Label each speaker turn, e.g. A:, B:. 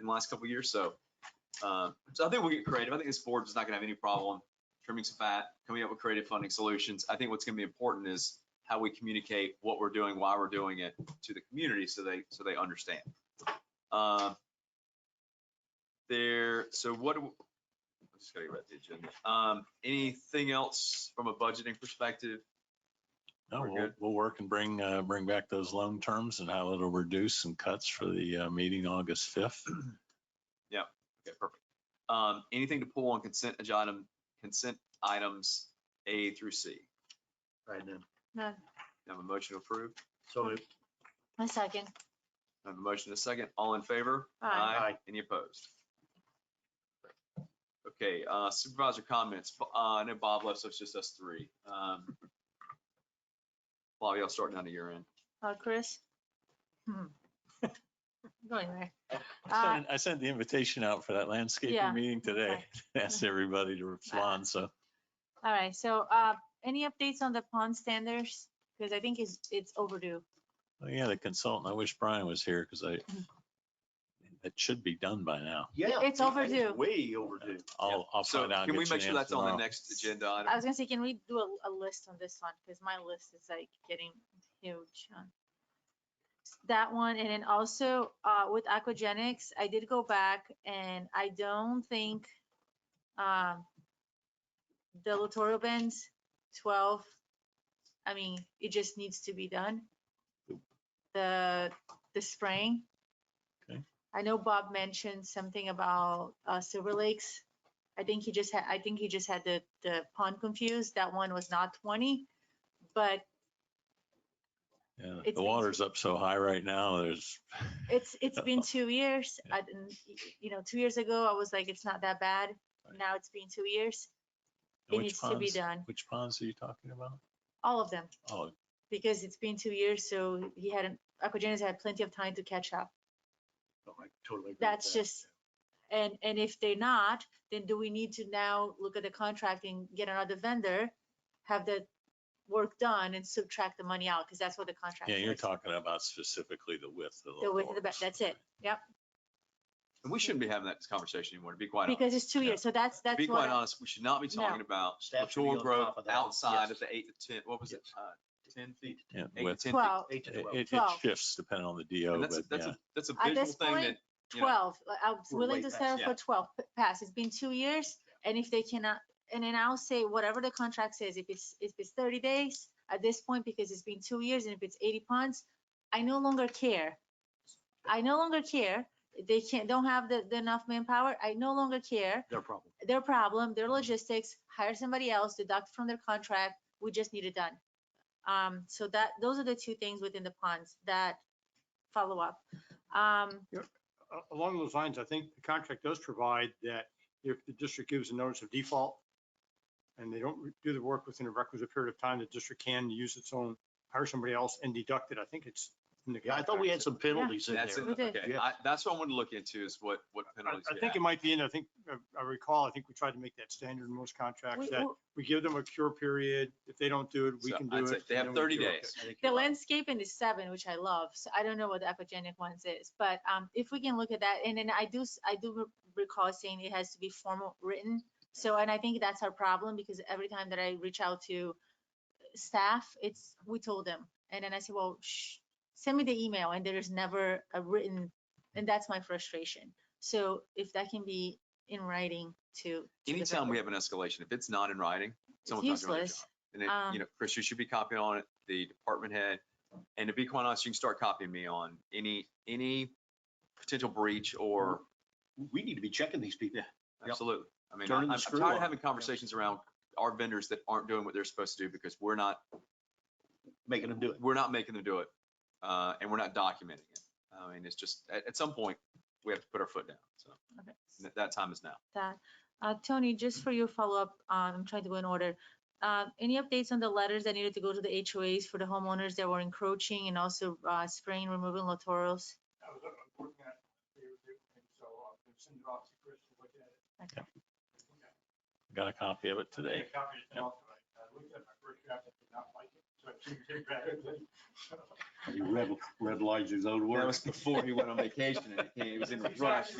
A: in the last couple of years. So, uh, so I think we'll get creative. I think this board is not gonna have any problem trimming some fat, coming up with creative funding solutions. I think what's gonna be important is how we communicate what we're doing, why we're doing it to the community so they, so they understand. Uh, There, so what, do- I'm just gotta read the agenda. Um, anything else from a budgeting perspective?
B: No,
A: We're
B: we'll,
A: good.
B: we'll work and bring, uh, bring back those loan terms and how it'll reduce some cuts for the, uh, meeting August 5th.
A: Okay, perfect. Um, anything to pull on consent agenda, consent items A through C?
C: Right then.
D: No,
A: I Have a motion to approve.
C: So
D: Hmm.
C: moved.
D: a second.
A: I Have a motion to second. All in favor?
D: Aye.
C: Aye.
A: Any opposed? Okay, uh, supervisor comments. Bo- Uh, I know Bob left, so it's just us three. Um, Bobby, I'll start down to your end.
D: Uh, Chris? Hmm. Go anywhere.
B: I sent- I sent the invitation out for that
D: Ah. Yeah,
B: landscaping meeting today.
D: okay.
B: Asked everybody to respond, so.
D: All right, so, uh, any updates on the pond standards? Because I think it's, it's overdue.
B: Oh, Yeah, the consultant, I wish Brian was here because I,
D: Mm-hmm.
B: it should be done by now.
C: Yeah.
D: It's overdue.
C: Way overdue.
B: I'll, I'll
A: So
B: find out. and
A: can we
B: get you
A: make
B: an
A: sure
B: answer
A: that's on the
B: tomorrow.
A: next agenda
D: I
A: item?
D: was gonna say, can we do a, a list on this one? Because my list is like getting huge. on That one, and then also, uh, with aquagenics, I did go back and I don't think, um, the littoral bends, twelve, I mean, it just needs to be done. The, the spraying.
B: Okay.
D: I know Bob mentioned something about, uh, Silver Lakes. I think he just had, I think he just had the, the pond confused. That one was not twenty, but
B: Yeah,
D: it's
B: The
D: been-
B: water's up so high right now, there's,
D: it's, it's been two years. I didn't, you know, two years ago, I was like, it's not that bad.
B: Right.
D: Now it's been two years. It
B: which
D: needs to be
B: ponds,
D: done.
B: which ponds are you talking about?
D: All of them,
B: Oh,
D: because it's been two years, so he hadn't, Aquagenics had plenty of time to catch up.
C: Oh, I Totally. agree with
D: That's
C: that.
D: just, and, and if they're not, then do we need to now look at the contract and get another vendor? Have the work done and subtract the money out, because that's what the contract
B: yeah,
D: is.
B: you're talking about specifically the width of the.
D: The width of the ba-
B: doors.
D: that's it. Yep,
A: And we shouldn't be having that conversation anymore, to be quite honest.
D: because it's two
B: Yeah.
D: years, so that's,
A: To be
D: that's
A: quite
D: what,
A: honest, we should not be talking about
C: Staff should be
A: mature
C: on
A: growth
C: top of that.
A: outside of
C: Yes.
A: the eight to ten, what was it?
C: Yes.
A: Uh, Ten feet,
B: Yeah,
A: eight to
B: width.
A: ten feet.
D: twelve,
C: Eight to
B: It,
C: twelve.
B: it- it
D: Twelve.
B: shifts depending on the
A: And
B: DO,
A: that's,
B: but
A: that's
B: yeah.
A: a, that's a
D: At
A: visual
D: this
A: thing
D: point,
A: that, you know,
D: twelve, like, I was
C: We're
D: willing
C: way
D: to
C: past-
D: settle
A: yeah.
D: for twelve p- pass, it's been two years, and if they cannot, and then I'll say whatever the contract says, if it's, if it's thirty days, at this point, because it's been two years, and if it's eighty ponds, I no longer care. I no longer care, they can't, don't have the, the enough manpower, I no longer care,
C: Their problem.
D: their problem, their logistics, hire somebody else, deduct from their contract, we just need it done. Um, so that, those are the two things within the ponds that follow up. Um,
E: a- along those lines, I think the contract does provide that if the district gives a notice of default and they don't do the work within a requisite period of time, the district can use its own, hire somebody else and deduct it. I think it's in the
C: Yeah, I thought we had
E: contract.
C: some penalties in there.
A: that's,
D: We
A: it.
D: did.
A: okay,
C: Yeah.
A: I, that's what I want to look into is what, what penalties.
E: I- I
A: we
E: think
A: have.
E: it might be in, I think, I- I recall, I think we tried to make that standard in most contracts
D: we-
E: that
D: we-
E: we give them a cure period. If they don't do it, we
A: So
E: can
A: I'd
E: do
A: say
E: it.
A: they
E: and
A: have
E: then we
A: 30
E: cure it.
A: days.
C: I think
D: The
C: you're right.
D: landscaping is seven, which I love, so I don't know what the aquagenic ones is, but, um, if we can look at that, and then I do, s- I do re- recall saying it has to be formal written. So, and I think that's our problem, because every time that I reach out to staff, it's, we told them, and then I say, well, shh, send me the email, and there is never a written, and that's my frustration. So if that can be in writing to. to the
A: Anytime we
D: vendor,
A: have an escalation, if it's not in writing,
D: it's
A: someone's not doing their job.
D: Useless,
A: And it, you
D: Um,
A: know, Chris, you should be copying on it, the department head. And to be quite honest, you can start copying me on any, any potential breach or,
C: We need to be checking these people. Mm-hmm. Yep.
A: absolutely. I mean, I-
C: Turning
A: I'm
C: the
A: I'm
C: screw
A: tired of
C: on.
A: having conversations around our vendors that aren't doing what they're supposed to do because we're not,
C: making them do it.
A: we're not making them do it. Uh, and we're not documenting it. I mean, it's just, at, at some point, we have to put our foot down. So
D: okay.
A: that- that time is now.
D: that. Uh, Tony, just for your follow-up, um, I'm trying to go in order. Uh, any updates on the letters that needed to go to the HOAs for the homeowners that were encroaching and also, uh, spraying, removing littorals?
E: I was uh, working on it, so I'll send it off to Chris to look at it.
D: Okay.
B: Got a copy of it today.
E: Take a copy of the notes, but I- I looked at my first draft, I did not like it, so I took it back.
C: He red, red lights his own
A: That was before he went on vacation and it came, it was in the rush.